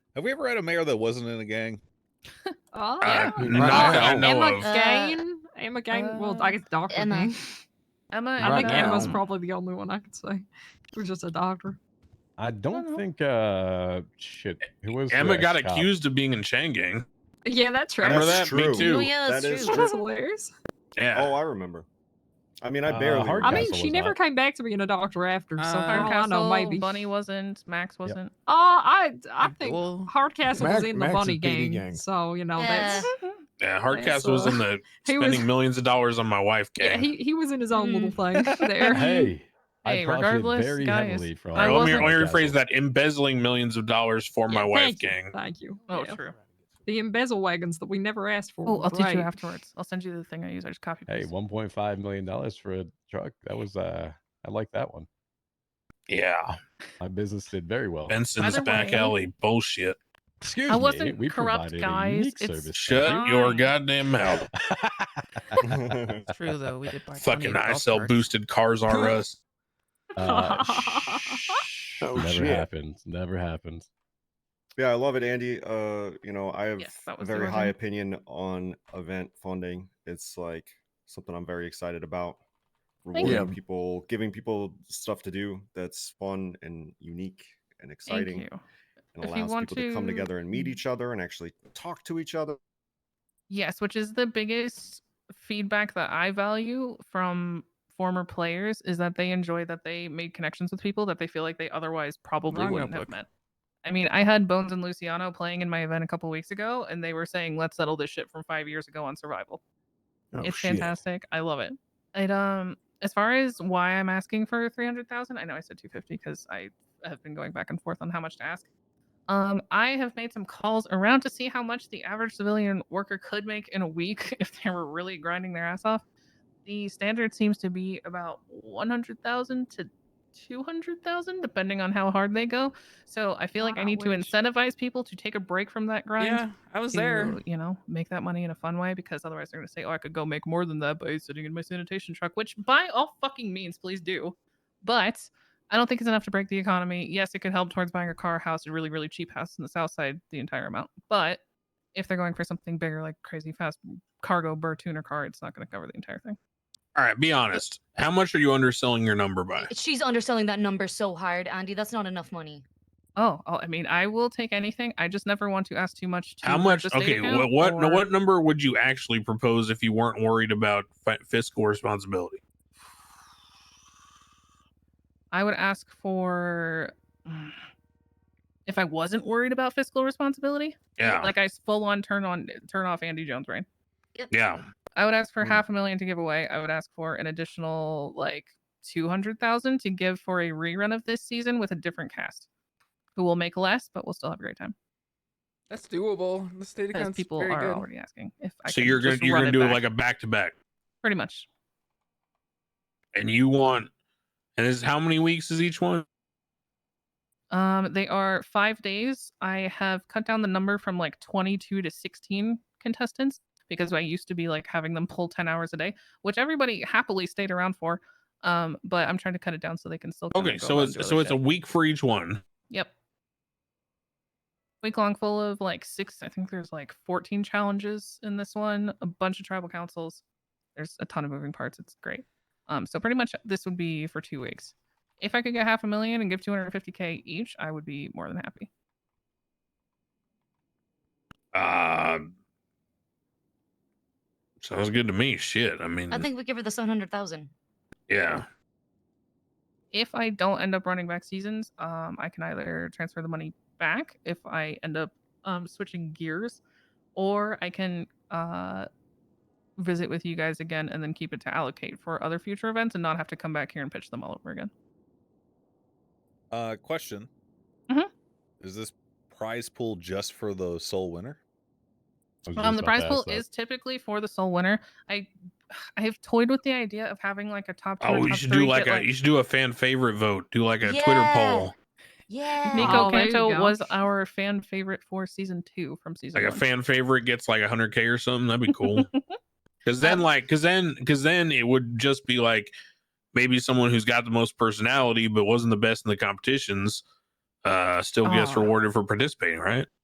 Have we ever had a mayor that wasn't in a gang? Oh, Uh, Yeah. not that I Right. know Emma of. Gain. Emma Gain. well, I guess Doctor Uh, Emma. uh, Gain. Emma. I think Right Emma's now. probably the only one I could say. It was just a doctor. I don't know. think uh shit. Who was the Emma got ex-cop? accused of being in Chang Gang. Yeah, that's right. Remember That's, that? That's Me true. too. Oh, yeah, that's That is true. true. hilarious. Yeah. Oh, I remember. I mean, I Uh, barely. Hard I mean, Castle she was never not. came back to being a doctor after, so Uh, for all I know, Hardcastle, maybe. Bunny wasn't. Max wasn't. Uh, I I think Well, Hardcastle was Mac- in the Mac's a bunny gang, PD gang. so you know that's yeah. Hardcastle was in the he was spending millions of dollars on my wife yeah, gang. he he was in his own little Hmm. thing there. Hey, I Hey, profited regardless, very guys, heavily from. I Or let me, wasn't- let me rephrase that: embezzling millions of dollars for my Yeah, wife thank you, gang. Thank you. Oh, yeah. true. The embezzle wagons that we never asked for. Oh, I'll teach right. you afterwards. I'll send you the thing I use. I just copy. Hey, paste. one point five million dollars for a truck. That was uh, I like that one. Yeah, My business did very well. Benson's Either back way- alley bullshit. Excuse I me, wasn't we corrupt, provided a guys. unique It's- service. Shut Fine. your goddamn mouth. it's true though. We did buy Fucking I I sell boosted cars R us. Uh, shh, Oh, never shit. happened. Never happened. yeah, I love it, Andy. Uh, you know, I have Yes, that a was the very high origin. opinion on event funding. It's like something I'm very excited about. Thank Rewarding you. people, giving people stuff to do that's fun and unique and Thank exciting, you. and If you allows want people to... come to- together and meet each other and actually talk to each other. Yes, which is the biggest feedback that I value from former players is that they enjoy that they made connections with people that they feel like they otherwise probably Wrong wouldn't have notebook. met. I mean, I had Bones and Luciano playing in my event a couple weeks ago, and they were saying, "Let's settle this shit from five years ago on survival." Oh, it's shit. fantastic. I love it. It um, as far as why I'm asking for three hundred thousand, I know I said two fifty because I have been going back and forth on how much to ask. Um, I have made some calls around to see how much the average civilian worker could make in a week if they were really grinding their ass off. The standard seems to be about 100,000 to 200,000, depending on how hard they go. So I feel like I Wow, need to which- incentivize people to take a break from that grind. Yeah, I was To, there. you know, make that money in a fun way because otherwise they're going to say, oh, I could go make more than that by sitting in my sanitation truck, which by all fucking means, please do. But I don't think it's enough to break the economy. Yes, it could help towards buying a car, house, a really, really cheap house in the South Side, the entire amount. But if they're going for something bigger, like crazy fast cargo burr tuner car, it's not going to cover the entire thing. All right, be honest. How much are you underselling your number by? She's underselling that number so hard, Andy. That's not enough money. Oh, oh, I mean, I will take anything. I just never want to ask too much. To How hurt much? the state Okay, account what what no, or- what number would you actually propose if you weren't worried about fi- fiscal responsibility? I would ask for. If I wasn't worried about fiscal responsibility, Yeah, like I full on turn on turn off Andy Jones brain. yeah. I would ask for Mm. half a million to give away. I would ask for an additional like two hundred thousand to give for a rerun of this season with a different cast, who will make less but will still have a great time That's doable. The state because account's people very are good. already asking if I. So can you're gonna just you're run gonna do it back. like a back to back, pretty much. and you want, and this is how many weeks is each one? Um, they are five days. I have cut down the number from like 22 to 16 contestants because I used to be like having them pull 10 hours a day, which everybody happily stayed around for. Um, but I'm trying to cut it down so they can still. kinda Okay, go so out and it's do other so it's a shit. week for each one. Yep. Week long full of like six, I think there's like 14 challenges in this one, a bunch of tribal councils. There's a ton of moving parts. It's great. Um, so pretty much this would be for two weeks. If I could get half a million and give 250k each, I would be more than happy. Uh, sounds good to me. Shit, I mean, I think we give her the 700,000. yeah, If I don't end up running back seasons, um, I can either transfer the money back if I end up um, switching gears, or I can uh, visit with you guys again and then keep it to allocate for other future events and not have to come back here and pitch them all over again. Uh, question. Mhm. Is this prize pool just for the sole winner? I was Um, just the about prize to pool ask that. is typically for the sole winner. I I have toyed with the idea of having like a top. Two Oh, or you top should three, do like get, a you should do a fan favorite vote. Do like a Twitter Yeah. poll, Yeah. Nico Oh, there you Kanto go. was our fan favorite for season two from season like a one. fan favorite gets like 100k or something. That'd be cool. Because then, Um, like, because then, because then it would just be like maybe someone who's got the most personality but wasn't the best in the competitions uh still gets Oh. rewarded for participating, right?